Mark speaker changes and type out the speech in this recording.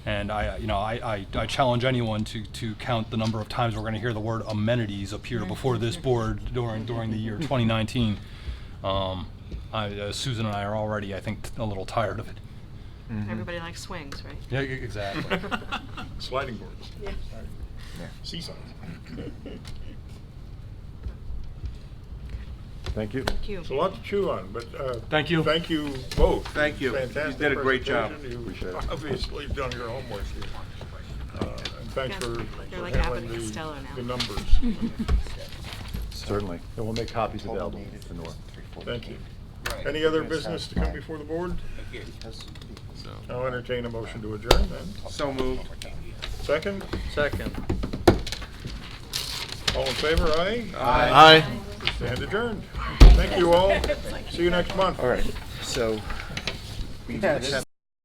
Speaker 1: And I, uh, you know, I, I, I challenge anyone to, to count the number of times we're going to hear the word amenities appear before this board during, during the year 2019. Um, I, uh, Susan and I are already, I think, t- a little tired of it.
Speaker 2: Everybody likes swings, right?
Speaker 1: Yeah, e- exactly.
Speaker 3: Sliding boards.
Speaker 2: Yeah.
Speaker 3: Seesaws.
Speaker 4: Mm-hmm.
Speaker 5: Thank you.
Speaker 2: Thank you.
Speaker 3: It's a lot to chew on, but, uh.
Speaker 1: Thank you.
Speaker 3: Thank you both.
Speaker 4: Thank you. You
Speaker 3: Fantastic
Speaker 4: did a great job.
Speaker 3: presentation.
Speaker 5: Appreciate
Speaker 3: You've
Speaker 5: it.
Speaker 3: obviously done your homework here. Uh, And thanks
Speaker 2: Yeah,
Speaker 3: for
Speaker 2: they're
Speaker 3: for
Speaker 2: like Abbott
Speaker 3: handling
Speaker 2: and Costello
Speaker 3: the,
Speaker 2: now.
Speaker 3: the numbers.
Speaker 5: Certainly. And we'll make copies available for Norm.
Speaker 3: Thank you. Any other business to come before the board? I'll entertain a motion to adjourn then.
Speaker 4: So moved.
Speaker 3: Second,
Speaker 4: Second.
Speaker 3: all in favor, aye?
Speaker 5: Aye.
Speaker 3: And adjourned. Thank you all. See you next month.
Speaker 5: All right, so.